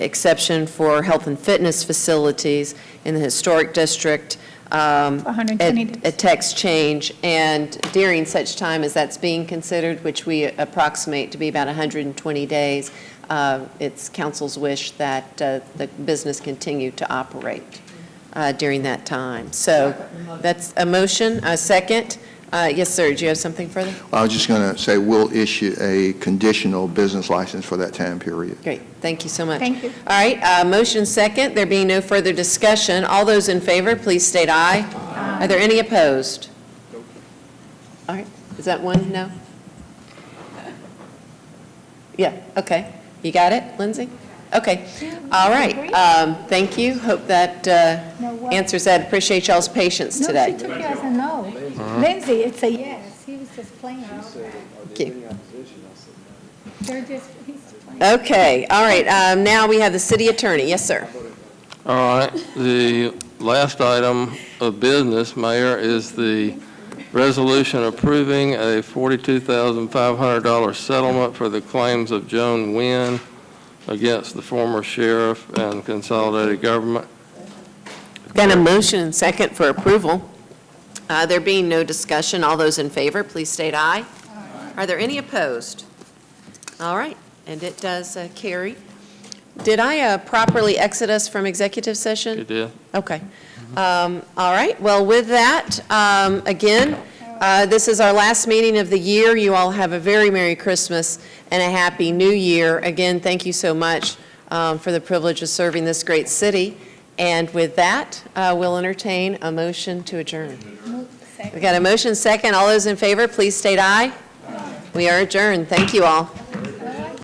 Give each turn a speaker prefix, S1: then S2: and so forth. S1: exception for health and fitness facilities in the historic district. um,
S2: 120
S1: a-
S2: days.
S1: A text change, and during such time as that's being considered, which we approximate to be about 120 days, uh, it's council's wish that uh, the business continue to operate uh, during that time. So that's a motion, a second. Uh, Yes, sir, do you have something further?
S3: I was just going to say, we'll issue a conditional business license for that time period.
S1: Great, thank you so much.
S2: Thank you.
S1: All right, uh, motion second, there being no further discussion, all those in favor, please state aye. Are there any opposed? All right, is that one no? Yeah, okay, you got it, Lindsay? Okay, all right, um, thank you, hope that uh,
S2: No, what?
S1: answers that, appreciate y'all's patience
S2: No, she
S1: today. Mm-hmm.
S2: took it as a no. Lindsay, it's a yes, he was just playing.
S1: Thank you.
S2: They're just, he's playing.
S1: Okay, all right, um, now we have the city attorney, yes, sir.
S4: All right, the last item of business, Mayor, is the resolution approving a $42,500 settlement for the claims of Joan Wynn against the former sheriff and consolidated government.
S1: Got a motion and second for approval. Uh, There being no discussion, all those in favor, please state aye. Are there any opposed? All right, and it does uh, carry. Did I uh, properly exit us from executive session?
S4: You did?
S1: Okay. Um, All right, well, with that, um, again, uh, this is our last meeting of the year. You all have a very Merry Christmas and a Happy New Year. Again, thank you so much um, for the privilege of serving this great city. And with that, uh, we'll entertain a motion to adjourn.
S2: Second.
S1: We've got a motion second. All those in favor, please state aye. We are adjourned. Thank you all.